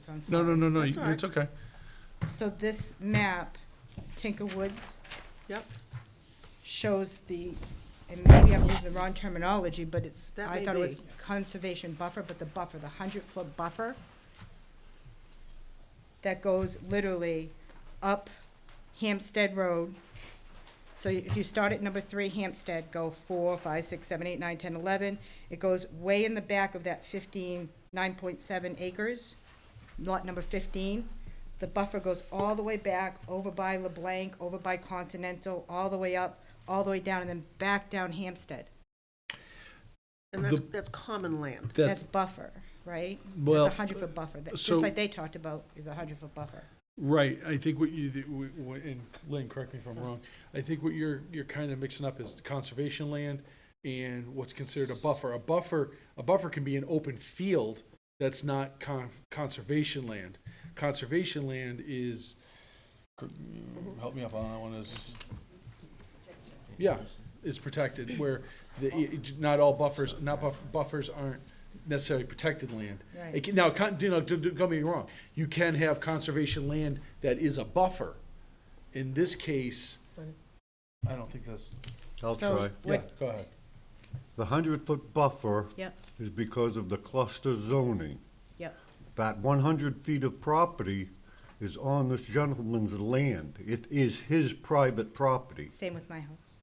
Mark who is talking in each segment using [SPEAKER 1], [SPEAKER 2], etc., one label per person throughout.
[SPEAKER 1] so I'm
[SPEAKER 2] No,
[SPEAKER 1] sorry.
[SPEAKER 2] no, no, no,
[SPEAKER 3] That's all right.
[SPEAKER 2] it's okay.
[SPEAKER 1] So this map, Tinker Woods.
[SPEAKER 3] Yep.
[SPEAKER 1] Shows the, and maybe I'm using the wrong terminology, but it's,
[SPEAKER 3] That
[SPEAKER 1] I
[SPEAKER 3] may
[SPEAKER 1] thought it was
[SPEAKER 3] be.
[SPEAKER 1] conservation buffer, but the buffer, the hundred foot buffer that goes literally up Hampstead Road. So if you start at number three Hampstead, go four, five, six, seven, eight, nine, ten, eleven. It goes way in the back of that fifteen, nine point seven acres, lot number fifteen. The buffer goes all the way back, over by LeBlanc, over by Continental, all the way up, all the way down, and then back down Hampstead.
[SPEAKER 3] And that's,
[SPEAKER 2] The-
[SPEAKER 3] that's common land.
[SPEAKER 1] That's
[SPEAKER 2] That's,
[SPEAKER 1] buffer, right?
[SPEAKER 2] Well,
[SPEAKER 1] That's a hundred foot buffer, That-
[SPEAKER 2] so-
[SPEAKER 1] just like they talked about, is a hundred foot buffer.
[SPEAKER 2] right, I think what you, the- w- w- and Lynn, correct me if I'm wrong, I think what you're, you're kind of mixing up is conservation land and what's considered a buffer. A buffer, a buffer can be an open field that's not con- conservation land. Conservation land is, help me up on that one, is, yeah, is protected, where the, i- i- not all buffers, not buff, buffers aren't necessarily protected land.
[SPEAKER 1] Right.
[SPEAKER 2] It can- Now, con- you know, don't don't get me wrong, you can have conservation land that is a buffer. In this case, I don't think that's,
[SPEAKER 4] I'll
[SPEAKER 1] So
[SPEAKER 4] try.
[SPEAKER 2] yeah,
[SPEAKER 1] what-
[SPEAKER 2] go ahead.
[SPEAKER 4] The hundred-foot buffer
[SPEAKER 1] Yep,
[SPEAKER 4] is because of the cluster zoning.
[SPEAKER 1] yep,
[SPEAKER 4] That one hundred feet of property is on this gentleman's land. It is his private property.
[SPEAKER 1] same with my house.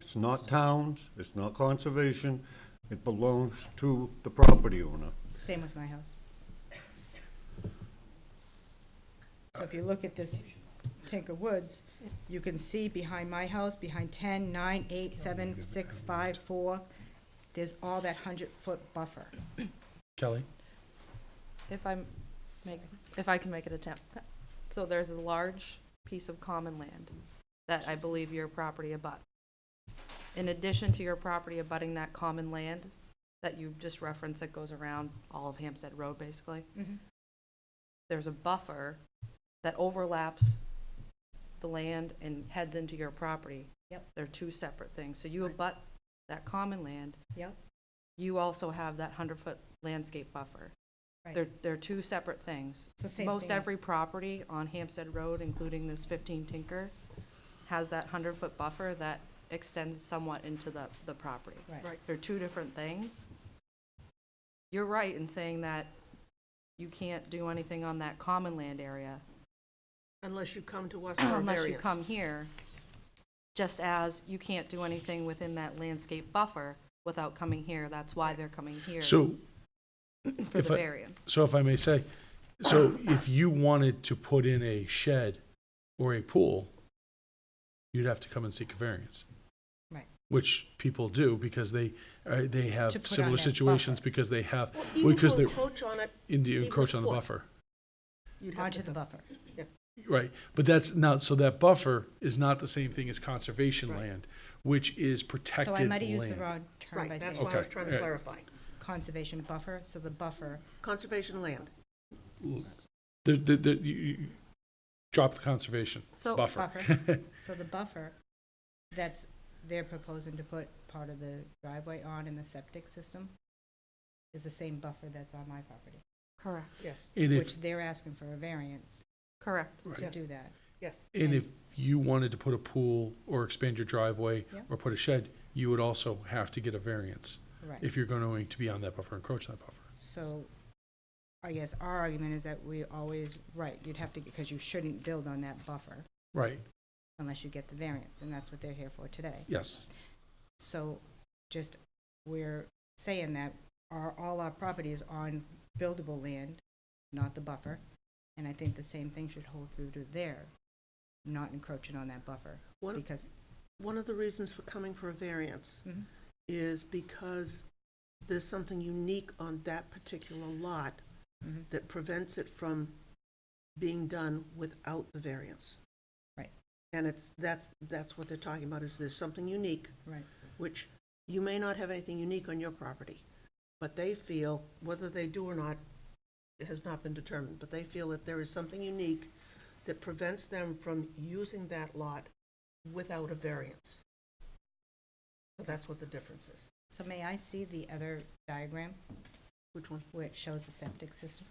[SPEAKER 4] It's not town's, it's not conservation, it belongs to the property owner.
[SPEAKER 1] Same with my house. So if you look at this Tinker Woods, you can see behind my house, behind ten, nine, eight, seven, six, five, four, there's all that hundred-foot buffer.
[SPEAKER 2] Kelly?
[SPEAKER 5] If I'm, make, if I can make an attempt. So there's a large piece of common land that I believe your property abuts. In addition to your property abutting that common land that you just referenced that goes around all of Hampstead Road, basically,
[SPEAKER 1] Mm-hmm.
[SPEAKER 5] there's a buffer that overlaps the land and heads into your property.
[SPEAKER 1] Yep.
[SPEAKER 5] They're two separate things. So you abut that common land,
[SPEAKER 1] Yep,
[SPEAKER 5] you also have that hundred-foot landscape buffer.
[SPEAKER 1] Right.
[SPEAKER 5] They're, they're two separate things.
[SPEAKER 1] It's the same
[SPEAKER 5] Most
[SPEAKER 1] thing.
[SPEAKER 5] every property on Hampstead Road, including this fifteen Tinker, has that hundred-foot buffer that extends somewhat into the, the property.
[SPEAKER 1] Right.
[SPEAKER 3] Right.
[SPEAKER 5] They're two different things. You're right in saying that you can't do anything on that common land area
[SPEAKER 3] Unless you come to us for a
[SPEAKER 5] unless you come
[SPEAKER 3] variance.
[SPEAKER 5] here, just as you can't do anything within that landscape buffer without coming here. That's why they're coming here.
[SPEAKER 2] So,
[SPEAKER 5] for
[SPEAKER 2] if
[SPEAKER 5] the
[SPEAKER 2] I-
[SPEAKER 5] variance.
[SPEAKER 2] so if I may say, so if you wanted to put in a shed or a pool, you'd have to come and seek a variance.
[SPEAKER 1] Right.
[SPEAKER 2] Which people do because they, uh, they
[SPEAKER 1] To
[SPEAKER 2] have
[SPEAKER 1] put on
[SPEAKER 2] similar
[SPEAKER 1] that
[SPEAKER 2] situations
[SPEAKER 1] buffer.
[SPEAKER 2] because they have,
[SPEAKER 3] Well, even
[SPEAKER 2] because
[SPEAKER 3] to
[SPEAKER 2] they're,
[SPEAKER 3] encroach on it,
[SPEAKER 2] in the
[SPEAKER 3] even
[SPEAKER 2] encroach on the
[SPEAKER 3] foot.
[SPEAKER 2] buffer.
[SPEAKER 3] you'd have
[SPEAKER 1] onto
[SPEAKER 3] to
[SPEAKER 1] the
[SPEAKER 3] come.
[SPEAKER 1] buffer.
[SPEAKER 2] Right, but that's not, so that buffer is not the same thing as conservation land, which is
[SPEAKER 1] So
[SPEAKER 2] protected
[SPEAKER 1] I might have used the
[SPEAKER 2] land.
[SPEAKER 1] wrong term by
[SPEAKER 3] Right,
[SPEAKER 1] saying
[SPEAKER 3] that's why I was
[SPEAKER 2] Okay.
[SPEAKER 3] trying to
[SPEAKER 2] Yeah.
[SPEAKER 3] clarify.
[SPEAKER 1] conservation buffer, so the buffer,
[SPEAKER 3] Conservation land.
[SPEAKER 2] The, the, the, you, you drop the conservation
[SPEAKER 5] So-
[SPEAKER 2] buffer.
[SPEAKER 1] so the buffer that's, they're proposing to put part of the driveway on in the septic system is the same buffer that's on my property,
[SPEAKER 5] Correct,
[SPEAKER 3] Yes,
[SPEAKER 2] And if,
[SPEAKER 1] which they're asking for a variance
[SPEAKER 5] correct.
[SPEAKER 2] right.
[SPEAKER 1] to
[SPEAKER 3] Yes.
[SPEAKER 1] do that.
[SPEAKER 3] yes.
[SPEAKER 2] and if you wanted to put a pool or expand your driveway
[SPEAKER 1] Yeah.
[SPEAKER 2] or put a shed, you would also have to get a variance
[SPEAKER 1] Right,
[SPEAKER 2] if you're going to be on that buffer, encroach that buffer.
[SPEAKER 1] so I guess our argument is that we always, right, you'd have to, because you shouldn't build on that buffer
[SPEAKER 2] Right,
[SPEAKER 1] unless you get the variance, and that's what they're here for today.
[SPEAKER 2] yes,
[SPEAKER 1] So just, we're saying that our, all our property is on buildable land, not the buffer. And I think the same thing should hold through to there, not encroaching on that buffer.
[SPEAKER 3] One-
[SPEAKER 1] Because,
[SPEAKER 3] One of the reasons for coming for a variance
[SPEAKER 1] Mhm.
[SPEAKER 3] is because there's something unique on that particular lot
[SPEAKER 1] Mhm.
[SPEAKER 3] that prevents it from being done without the variance.
[SPEAKER 1] Right.
[SPEAKER 3] And it's, that's, that's what they're talking about, is there's something unique
[SPEAKER 1] right,
[SPEAKER 3] which you may not have anything unique on your property, but they feel, whether they do or not, it has not been determined, but they feel that there is something unique that prevents them from using that lot without a variance. So that's what the difference is.
[SPEAKER 1] so may I see the other diagram
[SPEAKER 3] Which one?
[SPEAKER 1] where it shows the septic system?